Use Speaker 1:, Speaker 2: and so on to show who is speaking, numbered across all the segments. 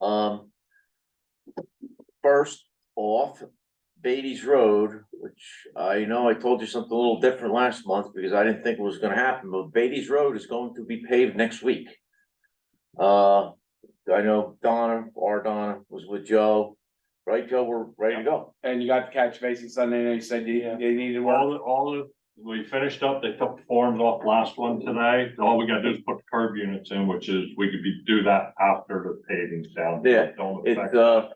Speaker 1: Um. First off, Beatty's Road, which I know I told you something a little different last month because I didn't think it was gonna happen, but Beatty's Road is going to be paved next week. Uh, I know Donna, our Donna was with Joe, right, Joe, we're ready to go.
Speaker 2: And you got the catch basin Sunday, and you said you,
Speaker 3: Yeah.
Speaker 2: they needed
Speaker 3: All,
Speaker 2: one.
Speaker 3: the- all, the- we finished up, they took the forms off last one today, all we gotta do is put the curb units in, which is, we could be, do that after the paving's down.
Speaker 1: Yeah,
Speaker 3: Don't
Speaker 1: It,
Speaker 3: affect
Speaker 1: uh,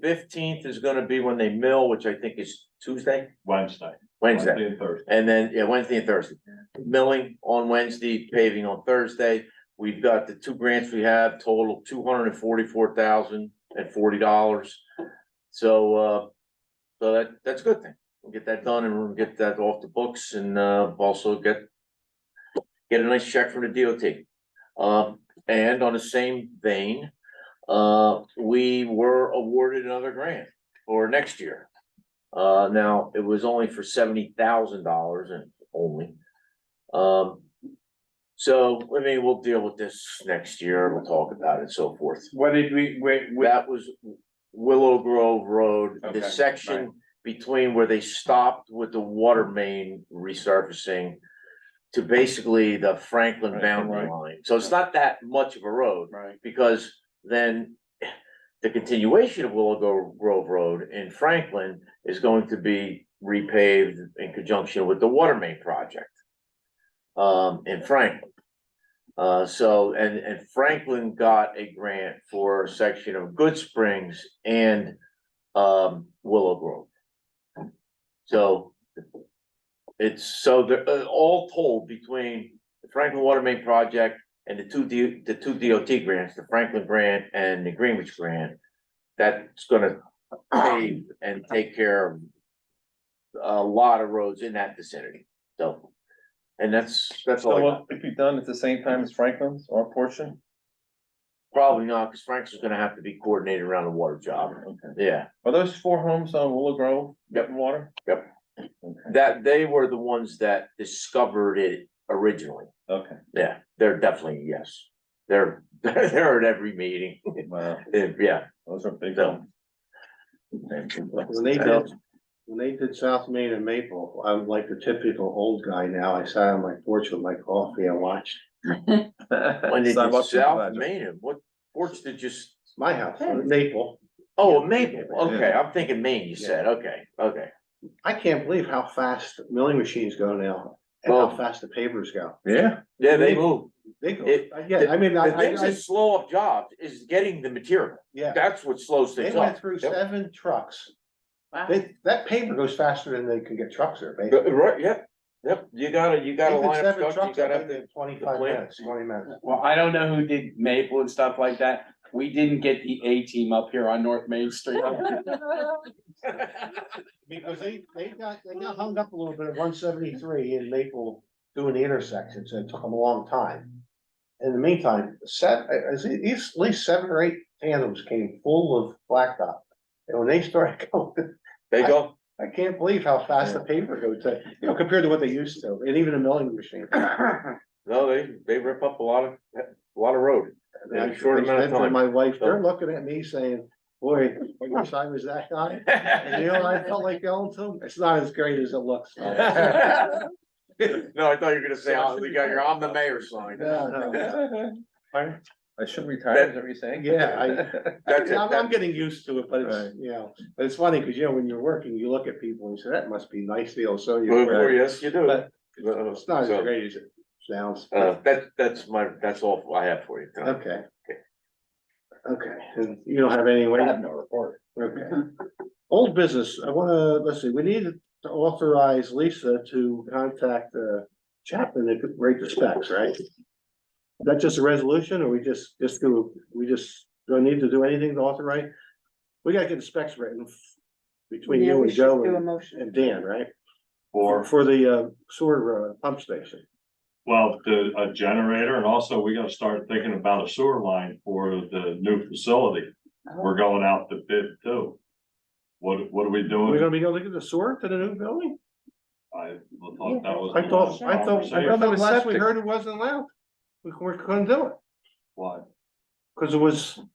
Speaker 1: fifteenth is gonna be when they mill, which I think is Tuesday,
Speaker 3: Wednesday.
Speaker 1: Wednesday.
Speaker 3: and Thursday.
Speaker 1: And then, yeah, Wednesday and Thursday. Milling on Wednesday, paving on Thursday. We've got the two grants we have total two hundred and forty-four thousand and forty dollars. So, uh, so that, that's a good thing. We'll get that done and we'll get that off the books and, uh, also get get a nice check from the DOT. Um, and on the same vein, uh, we were awarded another grant for next year. Uh, now, it was only for seventy thousand dollars and only. Um, so, I mean, we'll deal with this next year, we'll talk about it and so forth.
Speaker 2: What did we, we, we,
Speaker 1: That was Willow Grove Road,
Speaker 2: Okay,
Speaker 1: the
Speaker 2: right.
Speaker 1: section between where they stopped with the water main resurfacing to basically the Franklin
Speaker 2: Right,
Speaker 1: boundary
Speaker 2: right.
Speaker 1: line. So it's not that much of a road
Speaker 2: right,
Speaker 1: because then the continuation of Willow Gro- Grove Road in Franklin is going to be repaved in conjunction with the water main project um, in Franklin. Uh, so, and, and Franklin got a grant for a section of Good Springs and, um, Willow Grove. So it's, so they're, uh, all told between the Franklin Water Main Project and the two D, the two DOT grants, the Franklin grant and the Greenwich grant, that's gonna pave and take care of a lot of roads in that vicinity, so, and that's, that's all I got.
Speaker 4: So if you've done at the same time as Franklin's or portion?
Speaker 1: Probably not, because Frank's is gonna have to be coordinated around the water job,
Speaker 4: Okay.
Speaker 1: yeah,
Speaker 4: Are those four homes on Willow Grove?
Speaker 1: Yep.
Speaker 4: Getting water?
Speaker 1: Yep.
Speaker 4: Okay,
Speaker 1: that, they were the ones that discovered it originally,
Speaker 4: Okay,
Speaker 1: yeah, they're definitely, a yes. They're, they're at every meeting,
Speaker 4: wow,
Speaker 1: yeah.
Speaker 4: those are big
Speaker 1: So-
Speaker 4: homes.
Speaker 5: When they did, when they did South Main and Maple, I'm like the typical old guy now. I sat on my porch with my coffee and watched
Speaker 1: When they did
Speaker 4: Sidewalks and
Speaker 1: South
Speaker 4: project.
Speaker 1: Main, what porch did you, s-
Speaker 5: my house, Maple.
Speaker 1: oh, Maple, okay,
Speaker 4: Yeah.
Speaker 1: I'm thinking Maine, you said, okay, okay.
Speaker 5: I can't believe how fast milling machines go now and how
Speaker 1: Well-
Speaker 5: fast the pavers go.
Speaker 4: Yeah.
Speaker 1: Yeah, they
Speaker 5: Mhm.
Speaker 1: move.
Speaker 5: They go, uh,
Speaker 1: It-
Speaker 5: yeah, I mean, I,
Speaker 1: The
Speaker 5: I,
Speaker 1: things
Speaker 5: I-
Speaker 1: that slow up jobs is getting the material.
Speaker 5: yeah,
Speaker 1: That's what slows
Speaker 5: they
Speaker 1: things
Speaker 5: went
Speaker 1: up.
Speaker 5: through
Speaker 1: Yep.
Speaker 5: seven trucks. They, that paver goes faster than they can get trucks there,
Speaker 1: Uh,
Speaker 5: basically.
Speaker 1: Right, yep, yep, you gotta, you gotta
Speaker 5: They put
Speaker 1: line up
Speaker 5: seven
Speaker 1: trucks, you
Speaker 5: trucks up
Speaker 1: gotta.
Speaker 5: in twenty-five
Speaker 1: plant.
Speaker 5: minutes, twenty minutes.
Speaker 2: well, I don't know who did Maple and stuff like that, we didn't get the A team up here on North Main Street.
Speaker 5: Because they, they got, they got hung up a little bit at one seventy-three in Maple doing the intersection, so it took them a long time. In the meantime, set, uh, at least, at least seven or eight tandems came full of blacktop. And when they started going,
Speaker 1: They go,
Speaker 5: I can't believe how fast the paper goes, uh, you know, compared to what they used to, and even a milling machine.
Speaker 1: no, they, they rip up a lot of, a lot of road.
Speaker 5: And I
Speaker 1: In a short amount of
Speaker 5: said to
Speaker 1: time.
Speaker 5: My wife, they're looking at me saying, boy, I wish I was that high. And you know, I felt like going to, 'em. it's not as great as it looks.
Speaker 1: No, I thought you were gonna say, "Oh, we got your, I'm the mayor sign.
Speaker 5: No, no. Pardon?
Speaker 4: I should retire, is that what you're saying?
Speaker 5: Yeah, I-
Speaker 1: That's it,
Speaker 5: Yeah, I'm, I'm
Speaker 1: that-
Speaker 5: getting used to it, but it's,
Speaker 4: Right.
Speaker 5: you know, but it's funny, cause you know, when you're working, you look at people and say, that must be nice, feel so
Speaker 1: well,
Speaker 5: you.
Speaker 1: well, yes, you do.
Speaker 5: But
Speaker 1: Uh,
Speaker 5: It's not as
Speaker 1: so,
Speaker 5: great as it sounds.
Speaker 1: Uh, that, that's my, that's all I have for you tonight.
Speaker 5: Okay. Okay, and you don't have any way?
Speaker 4: I have no report.
Speaker 5: Okay. Old business, I wanna, let's see, we need to authorize Lisa to contact uh Chapman to rate the specs, right? That's just a resolution, or we just, just do, we just don't need to do anything to authorize? We gotta get the specs written between
Speaker 6: Yeah,
Speaker 5: you
Speaker 6: we
Speaker 5: and
Speaker 6: should
Speaker 5: Joe
Speaker 6: Do a
Speaker 5: and-
Speaker 6: motion.
Speaker 5: and Dan, right?
Speaker 3: Or,
Speaker 5: For the uh sewer uh, pump station.
Speaker 3: well, the, a generator, and also we gotta start thinking about a sewer line for the new facility. We're going out to bid too. What, what are we
Speaker 5: We're
Speaker 3: doing?
Speaker 5: gonna be going to get the sewer to the new building?
Speaker 3: I thought that was.
Speaker 5: I thought, I thought, I
Speaker 4: Well,
Speaker 5: thought
Speaker 4: there was
Speaker 5: last we
Speaker 4: septic.
Speaker 5: heard it wasn't allowed. We we couldn't do it,
Speaker 3: Why?
Speaker 5: cause it was